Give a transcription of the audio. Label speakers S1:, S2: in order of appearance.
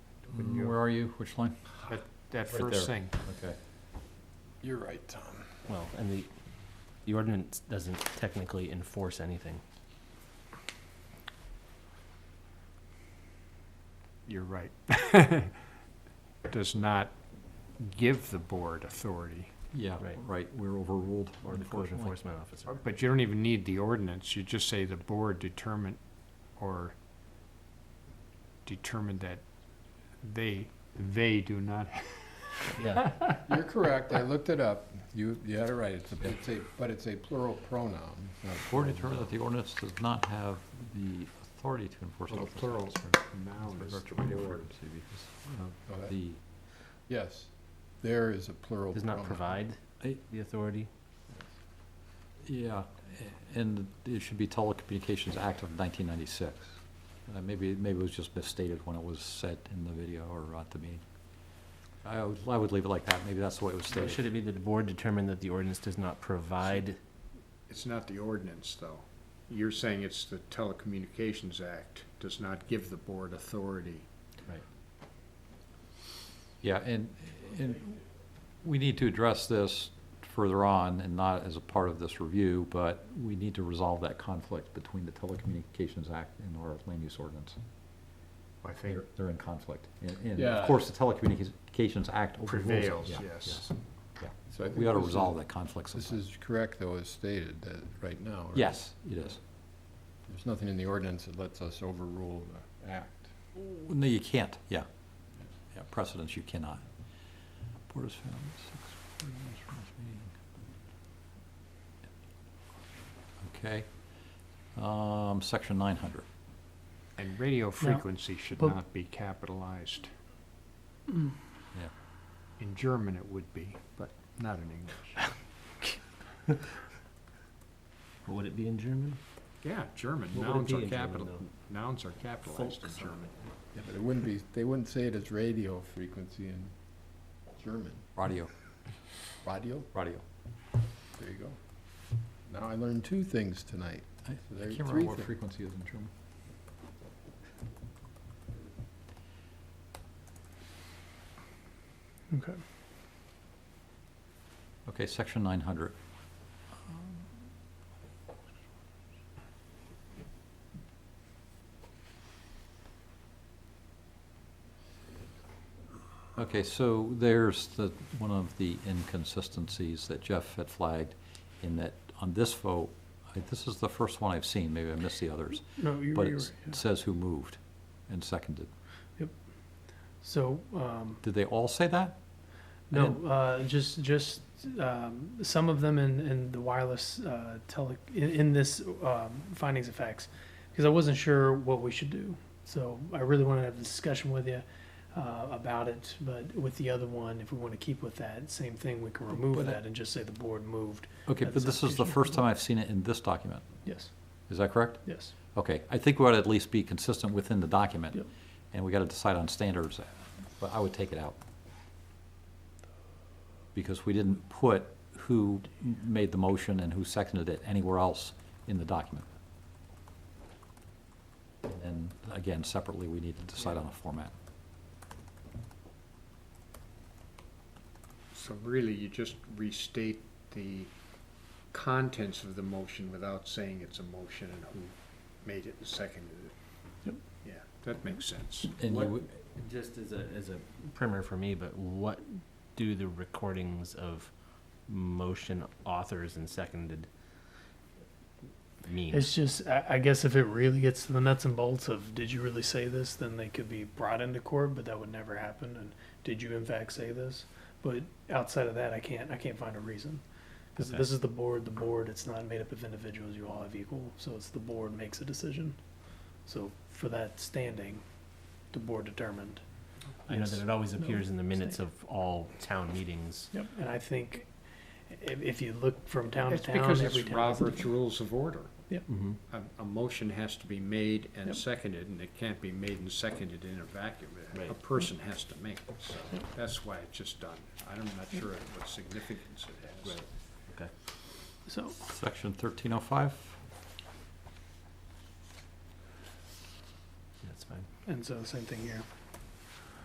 S1: are you? Which line?
S2: That, that
S1: Right
S2: first
S1: there.
S2: thing.
S1: Okay.
S3: You're right, Tom.
S4: Well, and the, the ordinance doesn't technically enforce anything.
S2: You're right. Does not give the board authority.
S1: Yeah,
S4: Right.
S1: right, we're overruled,
S4: Or the code
S1: unfortunately.
S4: enforcement officer.
S2: But you don't even need the ordinance. You just say the board determined or determined that they, they do not.
S4: Yeah,
S3: You're correct, I looked it up. You, you had it right, it's a, it's a, but it's a plural pronoun. it's not
S1: Board
S3: a plural
S1: determined that the ordinance does not have the authority to enforce.
S2: Well, the
S1: local
S2: plural
S1: laws.
S2: noun
S1: With
S2: is
S1: regard to
S2: the Uh,
S1: radio
S2: word.
S1: frequency, because of
S3: pronoun. Okay,
S1: The,
S3: Yes, there is a plural
S4: does
S3: pronoun.
S4: not provide
S1: I-
S4: the authority.
S1: yeah, a- and it should be Telecommunications Act of nineteen ninety-six. Uh, maybe, maybe it was just misstated when it was said in the video or at the meeting. I would, I would leave it like that, maybe that's the way it was
S4: So
S1: stated.
S4: should it be that the board determined that the ordinance does not provide?
S5: It's not the ordinance, though. You're saying it's the Telecommunications Act does not give the board authority.
S4: Right.
S1: Yeah, and, and we need to address this further on and not as a part of this review, but we need to resolve that conflict between the Telecommunications Act and our land use ordinance.
S5: I think
S1: They're, they're in conflict. And, and
S3: Yeah.
S1: of course, the Telecommunications Act overrules it.
S5: prevails,
S1: Yeah,
S5: yes.
S1: yeah, yeah.
S3: So I think
S1: We ought to
S3: this is-
S1: resolve that conflict
S3: This
S1: sometime.
S3: is correct, though, as stated, that, right now. right?
S1: Yes, it is.
S3: There's nothing in the ordinance that lets us overrule the act.
S1: No, you can't, yeah. Yeah, precedents you cannot. Board is found at six forty minutes from this meeting. Okay, um, section nine hundred.
S2: And radio frequency should
S6: but- Mm.
S2: not be capitalized.
S1: Yeah.
S2: In German it would be, but not in English.
S4: Would it be in German?
S2: Yeah, German,
S4: What would it
S2: nouns
S4: be
S2: are
S4: in German,
S2: capital, nouns are capitalized in German.
S3: Yeah, but it wouldn't be, they wouldn't say it as radio frequency in German.
S1: Radio,
S3: Radio,
S1: radio.
S3: there you go. Now I learned two things tonight.
S1: I
S3: So there
S1: I can't
S3: are three
S1: remember what
S3: things.
S1: frequency is in German.
S6: Okay.
S1: Okay, section nine hundred. Okay, so there's the, one of the inconsistencies that Jeff had flagged in that on this vote, I- this is the first one I've seen, maybe I missed the others,
S6: No, you,
S1: but
S6: you're
S1: it's-
S6: right.
S1: it says who moved and seconded.
S6: So, um,
S1: Did they all say that? I
S6: no,
S1: didn't-
S6: uh, just, just, um, some of them in, in the wireless, uh, tele, in, in this, um, findings of facts. Because I wasn't sure what we should do. So I really wanted to have a discussion with you, uh, about it. But with the other one, if we want to keep with that same thing, we can remove
S1: But I-
S6: that and just say the board moved.
S1: Okay,
S6: That's
S1: but this is the
S6: application.
S1: first time I've seen it in this document,
S6: Yes,
S1: is that correct?
S6: yes.
S1: Okay, I think we ought to at least be consistent within the document.
S6: Yep.
S1: And we got to decide on standards, but I would take it out. Because we didn't put who m- made the motion and who seconded it anywhere else in the document. And again, separately, we need to decide on a format.
S5: So really, you just restate the contents of the motion without saying it's a motion and who made it and seconded it.
S6: Yep.
S5: Yeah, that makes sense.
S1: And you
S4: What-
S1: would-
S4: Just as a, as a primer for me, but what do the recordings of motion authors and seconded mean?
S6: It's just, I, I guess if it really gets to the nuts and bolts of, did you really say this? Then they could be brought into court, but that would never happen. And did you in fact say this? But outside of that, I can't, I can't find a reason. Because
S4: Okay.
S6: this is the board, the board, it's not made up of individuals, you all have equal. So it's the board makes a decision. So for that standing, the board determined.
S4: I know that it always
S6: No,
S4: appears in the minutes
S6: same.
S4: of all town meetings.
S6: Yep. And I think if, if you look from town to
S5: It's
S6: town,
S5: because
S6: every
S5: it's
S6: town is
S5: Robert's
S6: different.
S5: Rules of Order.
S4: Mm-hmm.
S5: A, a motion has to be made and
S6: Yep.
S5: seconded, and it can't be made and seconded in a vacuum. A- A
S4: Right.
S5: person has to make it, so that's why it's just done. I'm not sure what significance it has.
S6: So.
S1: section thirteen oh five,
S4: That's fine.
S6: And so same thing here.